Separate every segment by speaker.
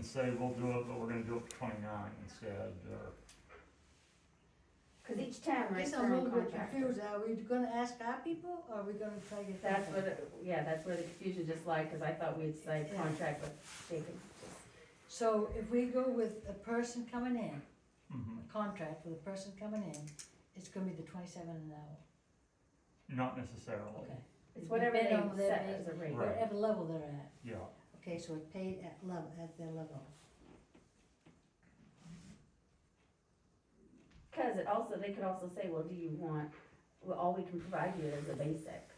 Speaker 1: say we'll do it, but we're gonna do it for twenty-nine instead, or,
Speaker 2: Cause each town writes their
Speaker 3: Guess I'm a
Speaker 2: own
Speaker 3: little bit
Speaker 2: contract.
Speaker 3: confused, are we gonna ask our people, or are we gonna try to get that?
Speaker 4: That's where, the- yeah, that's where the confusion just lied, because I thought we'd signed
Speaker 3: Yeah.
Speaker 4: contract with Jacob.
Speaker 3: So if we go with a person coming in,
Speaker 1: Mhm.
Speaker 3: a contract with a person coming in, it's gonna be the twenty-seven an hour,
Speaker 1: not necessarily,
Speaker 3: okay?
Speaker 4: It's whatever
Speaker 3: Depend
Speaker 4: they
Speaker 3: on their
Speaker 4: set as
Speaker 3: base-
Speaker 4: a rate.
Speaker 1: Right.
Speaker 3: Whatever level they're at,
Speaker 1: yeah.
Speaker 3: okay, so it's paid at level, at their level.
Speaker 4: Because it also, they could also say, well, do you want, well, all we can provide you is a basic,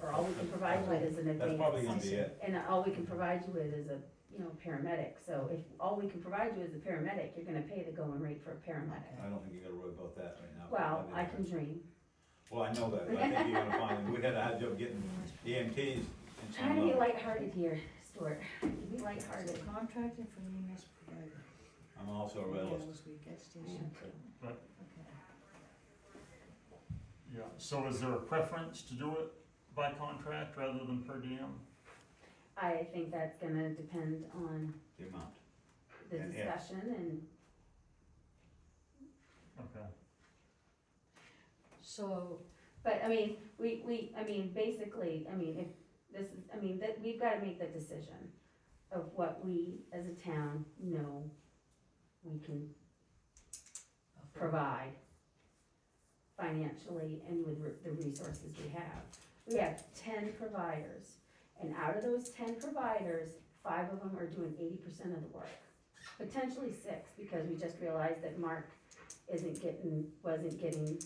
Speaker 4: or all we can provide you with is an
Speaker 5: That's probably
Speaker 4: advanced.
Speaker 5: gonna be it.
Speaker 4: And all we can provide you with is a, you know, paramedic, so if all we can provide you is a paramedic, you're gonna pay the going rate for a paramedic.
Speaker 5: I don't think you're gonna worry about that right now.
Speaker 4: Well, I can dream.
Speaker 5: Well, I know that, but I think you're gonna find, we had a hard job getting EMTs in
Speaker 4: Try
Speaker 5: some
Speaker 4: to be
Speaker 5: level.
Speaker 4: lighthearted here, Stuart, be
Speaker 3: So
Speaker 4: lighthearted.
Speaker 3: contracting for EMS provider.
Speaker 5: I'm also a
Speaker 4: E
Speaker 5: realist.
Speaker 3: Those we get
Speaker 4: Mm-hmm.
Speaker 3: station.
Speaker 1: Right.
Speaker 3: Okay.
Speaker 1: Yeah, so is there a preference to do it by contract rather than per diem?
Speaker 4: I think that's gonna depend on
Speaker 5: the amount.
Speaker 4: the
Speaker 5: And if.
Speaker 4: discussion and,
Speaker 1: Okay,
Speaker 3: So,
Speaker 4: but I mean, we, we, I mean, basically, I mean, if this is, I mean, that, we've gotta make the decision of what we as a town know we can provide financially and with re- the resources we have. We have ten providers, and out of those ten providers, five of them are doing eighty percent of the work. Potentially six, because we just realized that Mark isn't getting, wasn't getting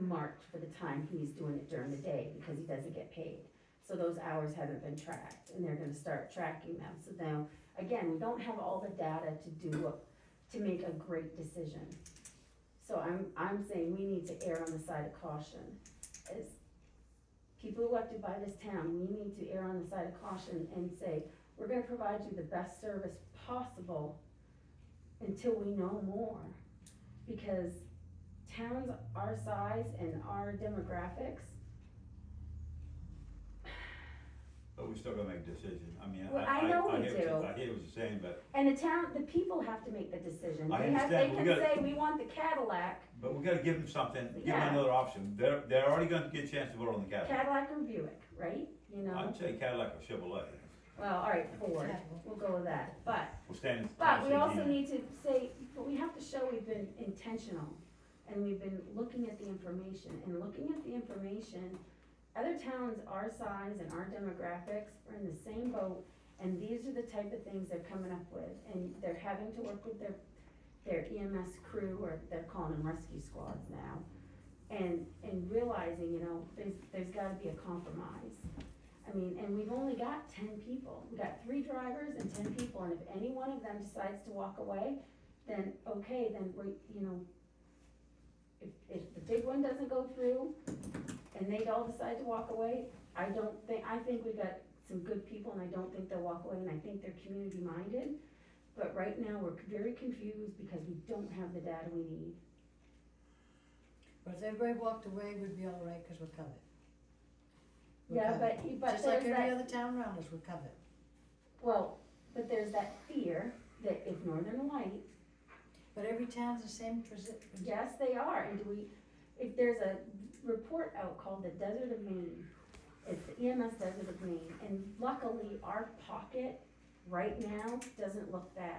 Speaker 4: marked for the time he's doing it during the day, because he doesn't get paid. So those hours haven't been tracked, and they're gonna start tracking them, so now, again, we don't have all the data to do, a- to make a great decision. So I'm, I'm saying we need to err on the side of caution. As people elected by this town, we need to err on the side of caution and say, we're gonna provide you the best service possible until we know more. Because towns our size and our demographics,
Speaker 5: But we still gotta make decisions. I mean, I,
Speaker 4: Well,
Speaker 5: I,
Speaker 4: I know
Speaker 5: I
Speaker 4: we
Speaker 5: hear what you're,
Speaker 4: do.
Speaker 5: I hear what you're saying, but,
Speaker 4: and the town, the people have to make the decision.
Speaker 5: I
Speaker 4: They have-
Speaker 5: understand,
Speaker 4: They
Speaker 5: we
Speaker 4: can
Speaker 5: gotta-
Speaker 4: say, we want the Cadillac,
Speaker 5: but we gotta give them something, give
Speaker 4: Yeah.
Speaker 5: them another option. They're, they're already gonna get a chance to vote on the Cadillac.
Speaker 4: Cadillac or Buick, right? You know,
Speaker 5: I'd say Cadillac or Chevrolet.
Speaker 4: well, all right, Ford,
Speaker 3: Chevrolet.
Speaker 4: we'll go with that, but
Speaker 5: We'll stand in.
Speaker 4: But we
Speaker 5: Tennessee
Speaker 4: also
Speaker 5: Dean.
Speaker 4: need to say, but we have to show we've been intentional and we've been looking at the information and looking at the information. Other towns our size and our demographics are in the same boat and these are the type of things they're coming up with. And they're having to work with their, their EMS crew or they're calling them rescue squads now. And, and realizing, you know, there's, there's gotta be a compromise. I mean, and we've only got ten people. We've got three drivers and ten people, and if any one of them decides to walk away, then, okay, then we, you know, if, if the big one doesn't go through and they all decide to walk away, I don't think, I think we got some good people and I don't think they'll walk away and I think they're community minded. But right now, we're very confused because we don't have the data we need.
Speaker 3: but if everybody walked away, we'd be all right, cause we're covered. We're
Speaker 4: Yeah,
Speaker 3: covered.
Speaker 4: but, but
Speaker 3: Just like
Speaker 4: there's
Speaker 3: every
Speaker 4: that,
Speaker 3: other town around us, we're covered.
Speaker 4: well, but there's that fear that if Northern Light
Speaker 3: But every town's the same posi-
Speaker 4: Yes, they are, and do we, if there's a report out called the Desert of Maine, it's the EMS Desert of Maine, and luckily, our pocket right now doesn't look bad.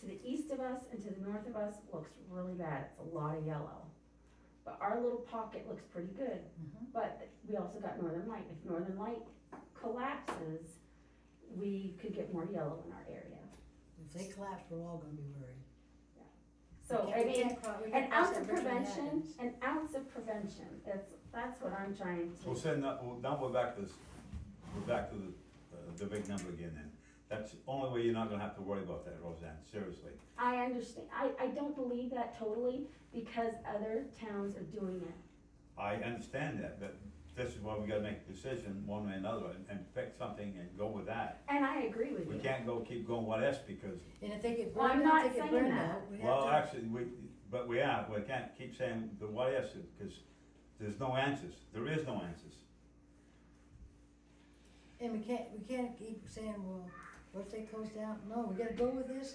Speaker 4: To the east of us and to the north of us looks really bad, it's a lot of yellow. But our little pocket looks pretty good,
Speaker 3: Mhm.
Speaker 4: but we also got Northern Light, if Northern Light collapses, we could get more yellow in our area.
Speaker 3: If they collapse, we're all gonna be worried.
Speaker 4: So,
Speaker 3: We
Speaker 4: I
Speaker 3: can't- we
Speaker 4: mean,
Speaker 3: can't cro- we
Speaker 4: An
Speaker 3: can't cross
Speaker 4: ounce
Speaker 3: that
Speaker 4: of
Speaker 3: bridge when it
Speaker 4: prevention,
Speaker 3: happens.
Speaker 4: an ounce of prevention, that's, that's what I'm trying
Speaker 5: We'll
Speaker 4: to,
Speaker 5: send that, well, now we're back to this, we're back to the, uh, the big number again then. That's the only way you're not gonna have to worry about that, Roseanne, seriously.
Speaker 4: I understand, I, I don't believe that totally, because other towns are doing it.
Speaker 5: I understand that, but this is why we gotta make a decision, one way or another, and, and pick something and go with that.
Speaker 4: And I agree with
Speaker 5: We
Speaker 4: you,
Speaker 5: can't go, keep going what else, because,
Speaker 3: And if they get
Speaker 4: Well, I'm
Speaker 3: burned out,
Speaker 4: not
Speaker 3: they get
Speaker 4: saying
Speaker 3: burned
Speaker 4: that.
Speaker 3: out, we have
Speaker 5: well,
Speaker 3: to-
Speaker 5: actually, we, but we are, we can't keep saying the what ifs, because there's no answers, there is no answers.
Speaker 3: And we can't, we can't keep saying, well, what if they close down? No, we gotta go with this